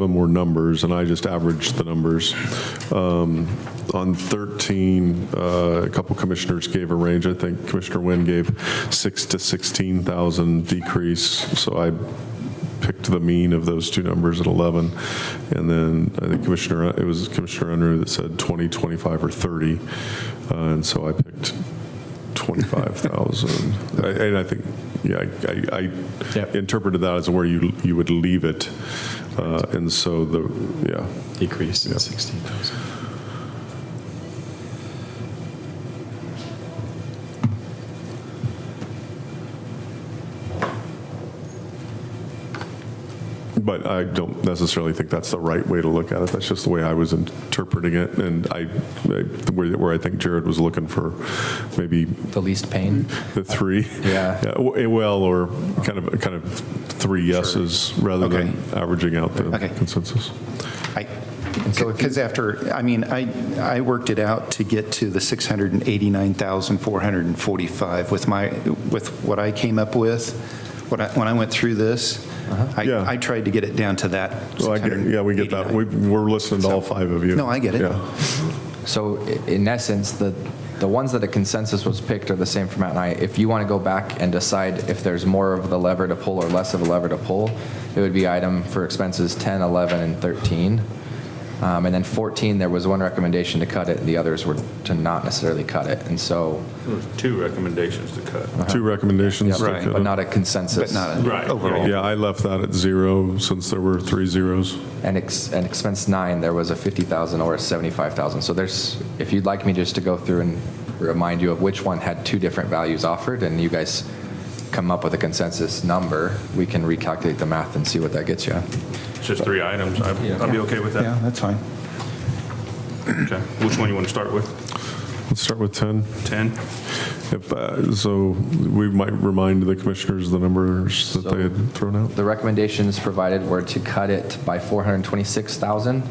them were numbers, and I just averaged the numbers. Um, On 13, uh, a couple commissioners gave a range. I think Commissioner Wynn gave 6 to 16,000 decrease, so I picked the mean of those two numbers at 11. And then I think Commissioner, it was Commissioner Unruh that said 20, 25, or 30, Uh, and so I picked 25,000. I- And I think, yeah, I- I I Yep. interpreted that as where you, you would leave it. Uh, And so the, yeah, Decrease in 16,000. but I don't necessarily think that's the right way to look at it. That's just the way I was interpreting it. And I, I- where where I think Jared was looking for maybe The least pain? the three. Yeah. w- eh, Well, or kind of, kind of three yeses rather than averaging out the Okay. consensus. I, because after, I mean, I, I worked it out to get to the 689,445 with my, with what I came up with, when I, when I went through this, Uh-huh. Yeah. I, I tried to get it down to that. So I get- Yeah, we get that. We- 689. We're listening to all five of you. No, I get it. Yeah. So i- in essence, the, the ones that a consensus was picked are the same for Matt and I. If you want to go back and decide if there's more of the lever to pull or less of a lever to pull, it would be item for expenses 10, 11, and 13. Um, And then 14, there was one recommendation to cut it, and the others were to not necessarily cut it. And so, Two recommendations to cut. Two recommendations. to cut but it. not a consensus. But not a- Right. overall. Yeah, I left that at zero since there were three zeros. And ex, and expense nine, there was a 50,000 or a 75,000. So there's, if you'd like me just to go through and remind you of which one had two different values offered, and you guys come up with a consensus number, we can recalculate the math and see what that gets you. It's just three items. I'd I'd be okay with Yeah, that. that's fine. Okay. Which one you want to start with? Let's start with 10. 10? If, uh, So we might remind the commissioners the numbers that they had thrown out. The recommendations provided were to cut it by 426,000,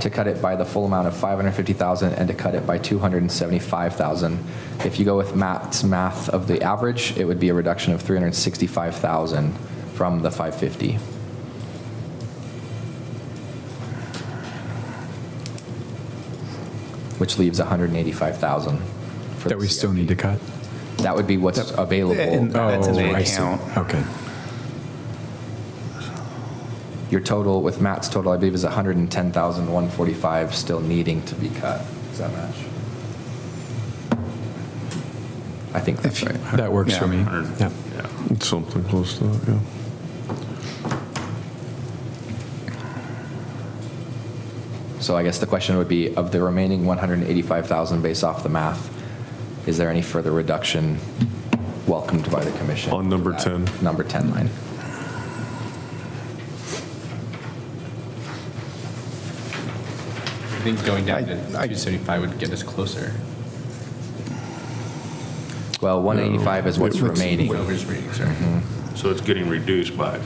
to cut it by the full amount of 550,000, and to cut it by 275,000. If you go with Matt's math of the average, it would be a reduction of 365,000 from the 550. Which leaves 185,000. for That we the still need to cut? CIP. That would be what's available. And- That's in the Oh, I see. account. Okay. Your total with Matt's total, I believe, is 110,145 still needing to be cut. Does that match? I think that's right. That works for me. Yeah. It's Something close to that, yeah. So I guess the question would be, of the remaining 185,000 based off the math, is there any further reduction welcomed by the commission? On number That 10. Number 10 line. I think going down to I- I- 275 would get us closer. Well, 185 is what's remaining. What I was reading, sorry. So it's getting reduced by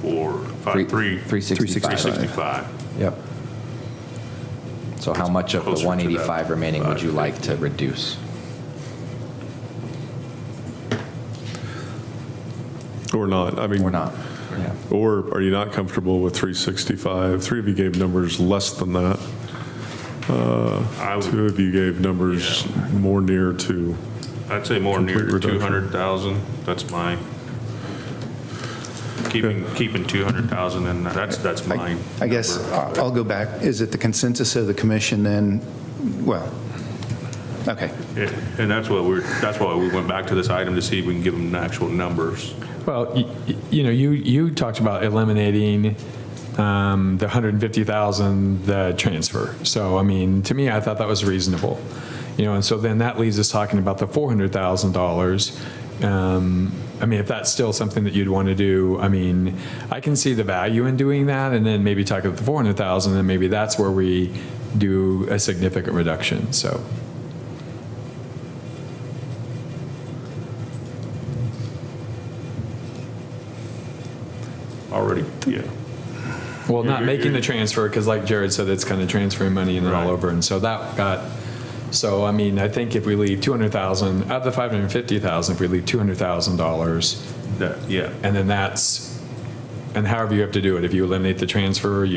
four, Three- five, three. 365. 365. Yep. So how much of the Closer to that 185 remaining would you like to reduce? Or not, I mean. Or not? Yeah. Or are you not comfortable with 365? Three of you gave numbers less than that. Uh, I Two would, of you gave numbers more near to, I'd say more near to Complete reduction. 200,000. That's my, keeping, keeping 200,000 and that's, that's I- mine. I guess number. I- I'll go back. Is it the consensus of the commission then? Well, okay. Yeah, And that's what we're, that's why we went back to this item to see if we can give them actual numbers. Well, y- y- you know, you, you talked about eliminating um, the 150,000, the transfer. So, I mean, to me, I thought that was reasonable. You know, and so then that leaves us talking about the $400,000. Um, I mean, if that's still something that you'd want to do, I mean, I can see the value in doing that and then maybe talk about the 400,000 and maybe that's where we do a significant reduction, so. Already, yeah. Well, not You're- making the you're- transfer, because like Jared said, it's kind of transferring money and then all Right. over. And so that got, so I mean, I think if we leave 200,000, out of the 550,000, if we leave $200,000, That, yeah. and then that's, and however you have to do it, if you eliminate the transfer, you